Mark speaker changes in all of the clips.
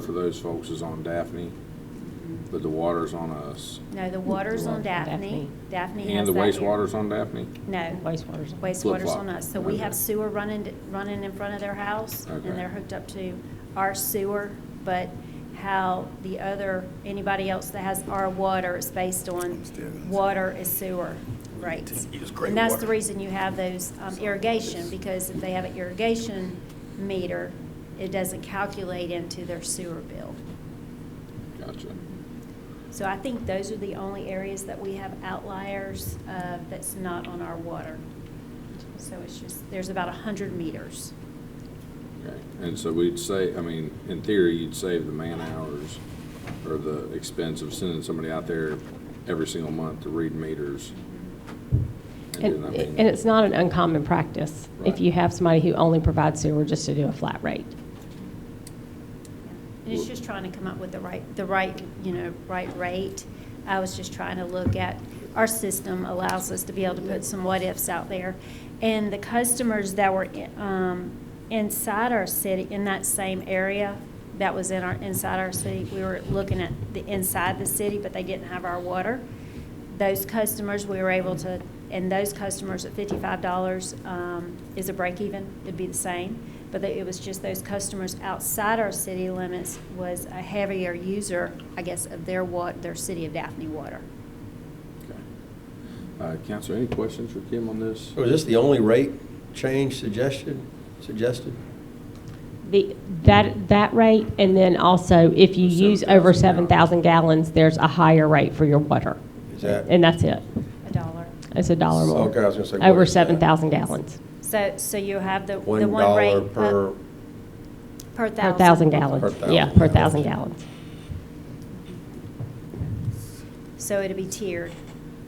Speaker 1: for those folks is on Daphne, but the water's on us.
Speaker 2: No, the water's on
Speaker 1: On
Speaker 2: Daphne.
Speaker 3: Daphne.
Speaker 2: Daphne
Speaker 1: And
Speaker 2: has
Speaker 1: the
Speaker 2: that area.
Speaker 1: wastewater's on Daphne?
Speaker 2: No,
Speaker 3: Wastewater's.
Speaker 2: wastewater's
Speaker 1: Flip-flop.
Speaker 2: on us. So we have
Speaker 1: Okay.
Speaker 2: sewer running, running in front of their house,
Speaker 1: Okay.
Speaker 2: and they're hooked up to our sewer, but how the other, anybody else that has our water is based on water is sewer rates.
Speaker 4: Use great
Speaker 2: And that's the
Speaker 4: water.
Speaker 2: reason you have those um, irrigation, because if they have an irrigation meter, it doesn't calculate into their sewer bill.
Speaker 1: Gotcha.
Speaker 2: So I think those are the only areas that we have outliers uh, that's not on our water. So it's just, there's about 100 meters.
Speaker 1: Okay. And so we'd say, I mean, in theory, you'd save the man hours or the expense of sending somebody out there every single month to read meters. then,
Speaker 3: And,
Speaker 1: I mean-
Speaker 3: and it's not an uncommon practice
Speaker 1: Right.
Speaker 3: if you have somebody who only provides sewer just to do a flat rate.
Speaker 2: And it's just trying to come up with the right, the right, you know, right rate. I was just trying to look at, our system allows us to be able to put some what-ifs out there. And the customers that were i- um, inside our city, in that same area, that was in our, inside our city, we were looking at the inside the city, but they didn't have our water. Those customers, we were able to, and those customers at fifty-five dollars um, is a break even, it'd be the same. But it was just those customers outside our city limits was a heavier user, I guess, of their wa, their city of Daphne water.
Speaker 1: Okay. Uh, Counselor, any questions for Kim on this?
Speaker 5: So Oh, is this the only rate change suggestion, suggested?
Speaker 3: The, that, that rate, and then also if you use over
Speaker 1: 7,000
Speaker 3: 7,000 gallons, there's a higher rate for your water.
Speaker 5: Is that-
Speaker 3: And that's it.
Speaker 2: A dollar.
Speaker 3: It's a dollar more.
Speaker 5: Okay, I was gonna say, what
Speaker 3: Over
Speaker 5: is that?
Speaker 3: 7,000 gallons
Speaker 2: So, so you have the, the
Speaker 5: One
Speaker 2: one rate.
Speaker 5: dollar
Speaker 2: uh,
Speaker 5: per,
Speaker 2: Per
Speaker 3: per
Speaker 2: thousand.
Speaker 3: thousand
Speaker 5: Per
Speaker 3: gallons.
Speaker 5: thousand
Speaker 3: Yeah, per
Speaker 5: gallons.
Speaker 3: thousand gallons.
Speaker 2: So it'll be tiered.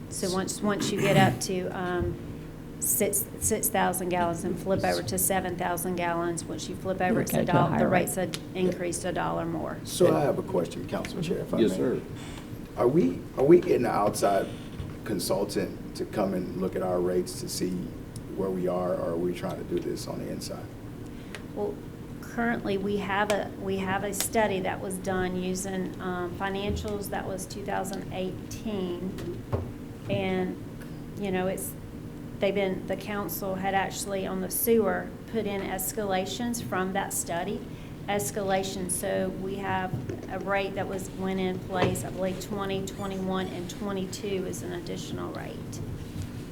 Speaker 2: So once, once you get up to um, six, 6,000 gallons and flip over to 7,000 gallons, once you flip over, it's a
Speaker 3: Okay, to a
Speaker 2: dollar, the
Speaker 3: higher rate.
Speaker 2: rate's a- increased a dollar more.
Speaker 6: So I have a question, Council Chair, if I may.
Speaker 1: Yes, sir.
Speaker 6: Are we, are we getting an outside consultant to come and look at our rates to see where we are, or are we trying to do this on the inside?
Speaker 2: Well, currently, we have a, we have a study that was done using um, financials, that was 2018. And, you know, it's, they've been, the council had actually on the sewer put in escalations from that study. Escalation, so we have a rate that was, went in place, I believe 20, 21, and 22 is an additional rate.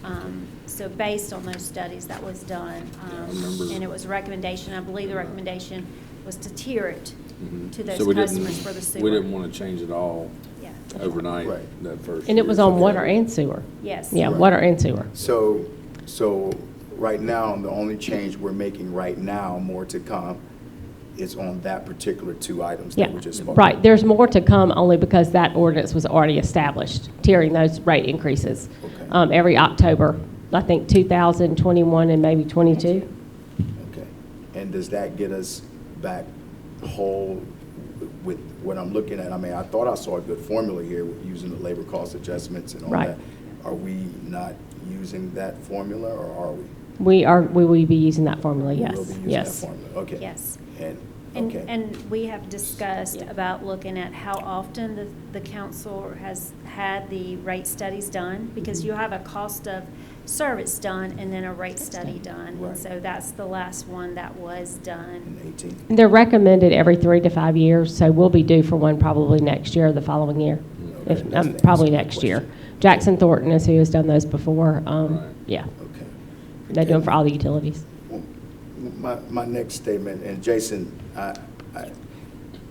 Speaker 2: Um, So based on those studies that was done,
Speaker 1: Yeah, I
Speaker 2: um,
Speaker 1: remember.
Speaker 2: and it was a recommendation, I believe the recommendation was to tier it
Speaker 1: Mhm.
Speaker 2: to those
Speaker 1: So we didn't-
Speaker 2: customers for the sewer.
Speaker 1: We didn't want to change it all
Speaker 2: Yeah,
Speaker 1: overnight
Speaker 6: Right.
Speaker 1: that first.
Speaker 3: And it
Speaker 1: year.
Speaker 3: was on
Speaker 1: So-
Speaker 3: water and sewer.
Speaker 2: yes.
Speaker 3: Yeah,
Speaker 6: Right.
Speaker 3: water and sewer.
Speaker 6: So, so right now, the only change we're making right now, more to come, is on that particular two items
Speaker 3: Yeah,
Speaker 6: that we just spoke.
Speaker 3: right. There's more to come only because that ordinance was already established, tiering those rate increases.
Speaker 6: Okay.
Speaker 3: Um, every October, I think 2021 and maybe 22.
Speaker 6: Okay, and does that get us back whole with what I'm looking at? I mean, I thought I saw a good formula here with using the labor cost adjustments and all
Speaker 3: Right.
Speaker 6: that. Are we not using that formula, or are we?
Speaker 3: We are, we will be using that formula,
Speaker 6: We will
Speaker 3: yes,
Speaker 6: be using that
Speaker 3: yes.
Speaker 6: formula, Okay.
Speaker 2: Yes.
Speaker 6: And,
Speaker 2: And,
Speaker 6: okay.
Speaker 2: and we have discussed
Speaker 3: Yeah.
Speaker 2: about looking at how often the, the council has had the rate studies done, because you have a cost of service done and then a rate study done. And
Speaker 6: Right.
Speaker 2: so that's the last one that was
Speaker 6: And
Speaker 2: done.
Speaker 6: 18?
Speaker 3: And They're recommended every three to five years, so we'll be due for one probably next year or the following year.
Speaker 6: Okay,
Speaker 3: If,
Speaker 6: that's the
Speaker 3: um,
Speaker 6: answer
Speaker 3: probably
Speaker 6: to the
Speaker 3: next year.
Speaker 6: question.
Speaker 3: Jackson Thornton is who has done those before. Um,
Speaker 1: Right.
Speaker 3: Yeah,
Speaker 6: Okay.
Speaker 3: they do them
Speaker 6: Okay.
Speaker 3: for all the utilities.
Speaker 6: Well, My, my next statement, and Jason, I,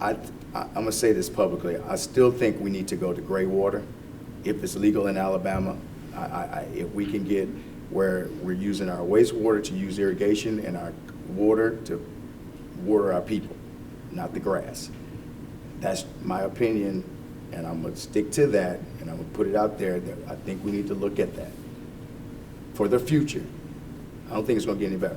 Speaker 6: I, I, I'm gonna say this publicly, I still think we need to go to gray water. If it's legal in Alabama, I, I, I- if we can get where we're using our wastewater to use irrigation and our water to water our people, not the grass. That's my opinion, and I'm gonna stick to that, and I'm gonna put it out there, that I think we need to look at that for the future. I don't think it's gonna get any better.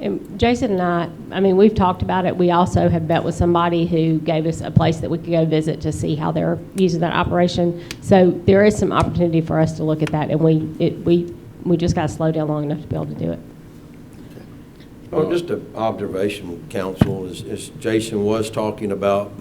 Speaker 3: And Jason and I, I mean, we've talked about it. We also have met with somebody who gave us a place that we could go visit to see how they're using that operation. So there is some opportunity for us to look at that, and we, it, we, we just got to slow down long enough to be able to do it.
Speaker 5: Oh, just an observation, council, is, is Jason was talking about